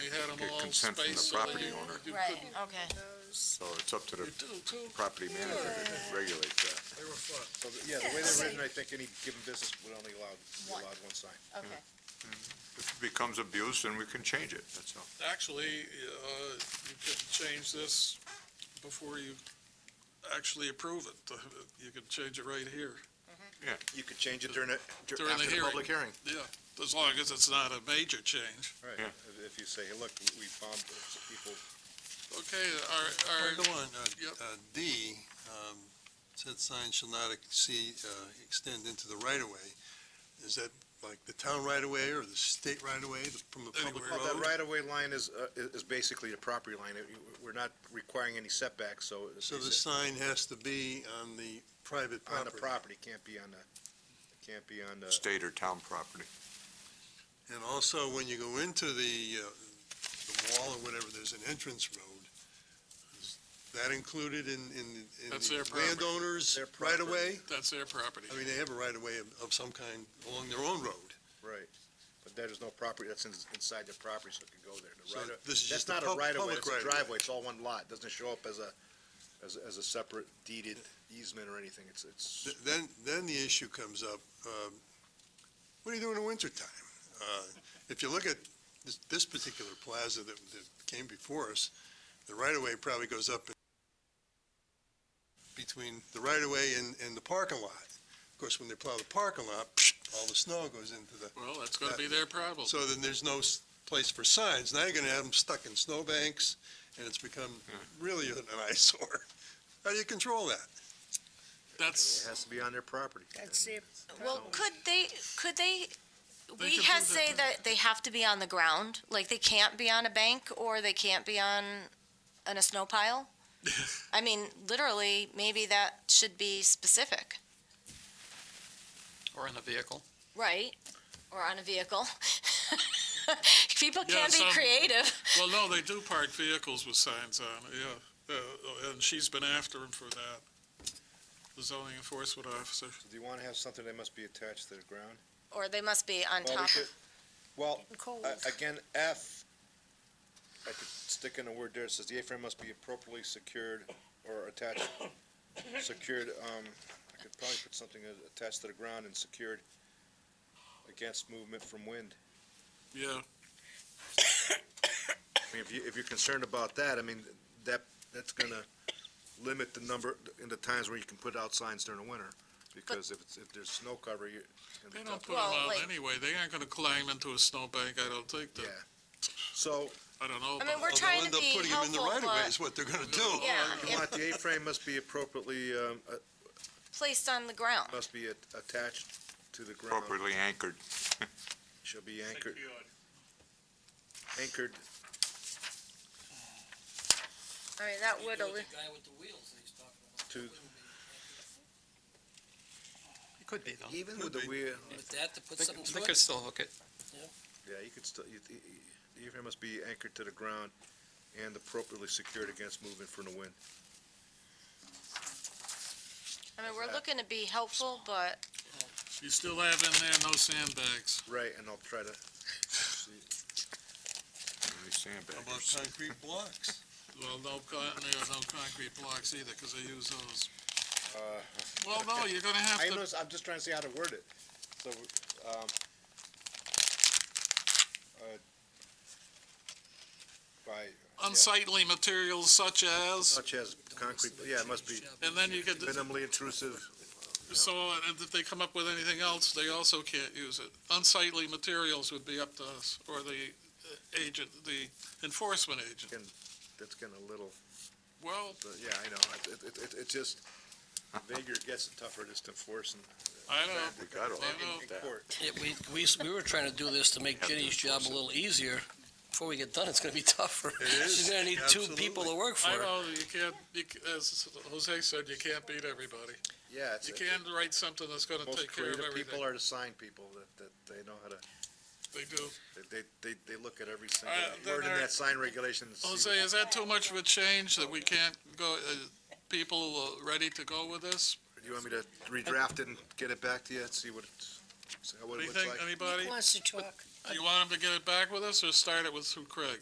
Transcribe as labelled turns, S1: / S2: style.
S1: get
S2: animal
S1: consent from the
S2: space so that
S1: property
S2: you-
S1: owner.
S2: you
S3: Right,
S2: couldn't-
S3: okay.
S1: So it's up to the
S2: You do too.
S1: property manager to regulate that.
S2: They were fun.
S4: So, the- yeah, the way they're written, I think any given business would only allow, be
S3: One.
S4: allowed one sign.
S3: Okay,
S1: If it becomes abuse, then we can change it, that's all.
S2: Actually, uh, you could change this before you actually approve it. You could change it right here.
S4: You could change it during a, dur-
S2: During the
S4: after the
S2: hearing.
S4: public hearing.
S2: Yeah, as long as it's not a major change.
S4: Right,
S1: Yeah.
S4: If- if you say, hey, look, we- we found that people,
S2: Okay, our, our.
S5: Well, Go on, uh,
S2: Yep.
S5: uh, D, um, said sign shall not exceed, uh, extend into the right-of-way. Is that like the town right-of-way or the state right-of-way from the public
S2: Anywhere.
S4: well, that
S5: road?
S4: right-of-way line is, uh, is is basically the property line. It- you- We're not requiring any setbacks, so it's
S5: So the
S4: it's
S5: sign has to be on the private
S4: on the
S5: property
S4: property, can't be on the, can't be on the,
S1: State or town property.
S5: And also, when you go into the, uh, the wall or whatever, there's an entrance road. Is that included in, in, in
S2: That's their
S5: the
S2: property.
S5: landowners
S4: Their property.
S5: right-of-way?
S2: That's their property.
S5: I mean, they have a right-of-way of, of some kind along their own road.
S4: right. But there's no property, that's in- inside the property, so it could go there. The
S5: So
S4: right-of-
S5: this is
S4: That's
S5: just the
S4: not a
S5: pub-
S4: right-of-way,
S5: public
S4: it's a
S5: right-of-way.
S4: driveway, it's all one lot. Doesn't show up as a, as, as a separate deeded easement or anything. It's, it's.
S5: Th- Then, then the issue comes up, um, what do you do in the wintertime? Uh, If you look at this, this particular plaza that, that came before us, the right-of-way probably goes up between the right-of-way and, and the parking lot. Of course, when they plow the parking lot, all the snow goes into the, uh,
S2: Well, that's gonna be their problem.
S5: so then there's no s- place for signs. Now you're gonna have them stuck in snowbanks, and it's become
S2: Hmm.
S5: really an eyesore. How do you control that?
S2: That's,
S4: It has to be on their property.
S6: That's it.
S3: well, could they, could they, we
S2: could
S3: have
S2: do
S3: say that they have to be on the ground, like they can't be on a bank or they can't be on, on a snow pile? I mean, literally, maybe that should be specific,
S7: Or in a vehicle.
S3: right? Or on a vehicle. People
S2: Yeah,
S3: can be
S2: some-
S3: creative.
S2: well, no, they do park vehicles with signs on, it, yeah. Uh, And she's been after him for that, the zoning enforcement officer.
S4: Do you want to have something that must be attached to the ground?
S3: Or they must be on
S4: Well, we
S3: top
S4: could- Well,
S6: Cold.
S4: a- again, F, I could stick in a word there, it says the A-frame must be appropriately secured or attached, secured, um, I could probably put something a- attached to the ground and secured against movement from wind.
S2: Yeah,
S4: I mean, if you, if you're concerned about that, I mean, that, that's gonna limit the number, and the times where you can put out signs during the winter, because if it's, if there's snow cover, you.
S2: they don't put them
S3: Well,
S2: out
S3: like-
S2: anyway. They aren't gonna climb into a snowbank, I don't think.
S4: Yeah,
S2: that-
S4: so,
S2: I don't know.
S3: mean,
S2: about-
S3: we're
S5: Well,
S3: trying to
S5: They'll
S3: be
S5: end up putting them in the
S3: helpful,
S5: right-of-way
S3: but-
S5: is what they're gonna do.
S3: Yeah,
S4: you
S3: if
S4: want the A-frame must be appropriately, um, uh,
S3: placed on the ground.
S4: must be at- attached to the ground,
S1: Appropriately anchored.
S4: shall be anchored, anchored,
S3: I mean, that would,
S8: The
S3: alli-
S8: guy with the wheels that he's talking about.
S4: To-
S7: It could be, though.
S4: even with the wheel,
S8: With that, to put
S7: They
S8: something
S7: could- they
S8: to
S7: could
S8: it,
S7: still hook it.
S4: yeah, you could still, you- you- the A-frame must be anchored to the ground and appropriately secured against movement from the wind.
S3: I mean, we're looking to be helpful, but
S2: You still have in there no sandbags.
S4: Right, and I'll try to, see,
S1: Really
S5: How about
S1: sandbaggers.
S5: concrete blocks?
S2: Well, no, con- there are no concrete blocks either, because they use those.
S4: uh,
S2: Well, no, you're gonna have
S4: I
S2: to,
S4: know, I'm just trying to see how to word it. So, um, uh, by,
S2: unsightly materials such as,
S4: such as concrete, yeah, it must be
S2: and then you could,
S4: minimally intrusive,
S2: so uh, if they come up with anything else, they also can't use it. Unsightly materials would be up to us, or the uh, agent, the enforcement agent.
S4: that's getting a little,
S2: Well,
S4: but yeah, I know, it, it, it, it just, vaguer it gets, the tougher it is to enforce and.
S2: I don't know.
S1: We got all
S2: I know.
S4: in- in court.
S8: Yeah, we, we, s- we were trying to do this to make
S1: Have to
S8: Ginny's job
S1: enforce
S8: a
S1: it.
S8: little easier. Before we get done, it's gonna be tougher.
S5: is,
S8: She's gonna need two people
S5: absolutely.
S8: to work for
S2: I
S8: her.
S2: know, you can't, you c- as Jose said, you can't beat everybody.
S4: Yeah, it's,
S2: You can write something that's gonna
S4: most
S2: take care of
S4: creative people
S2: everything.
S4: are the sign people, that, that they know how to,
S2: They do.
S4: they, they, they- they look at every single
S2: Uh, then
S4: word in
S2: our-
S4: that sign regulation. and see
S2: Jose, is that too much of a change that we can't go, uh, people uh, ready to go with this?
S4: Do you want me to redraft it and get it back to you and see what it's, see what
S2: What do
S4: it
S2: you
S4: looks
S2: think,
S4: like?
S2: anybody?
S6: Wants to talk.
S2: Do you want them to get it back with us or start it with through Craig?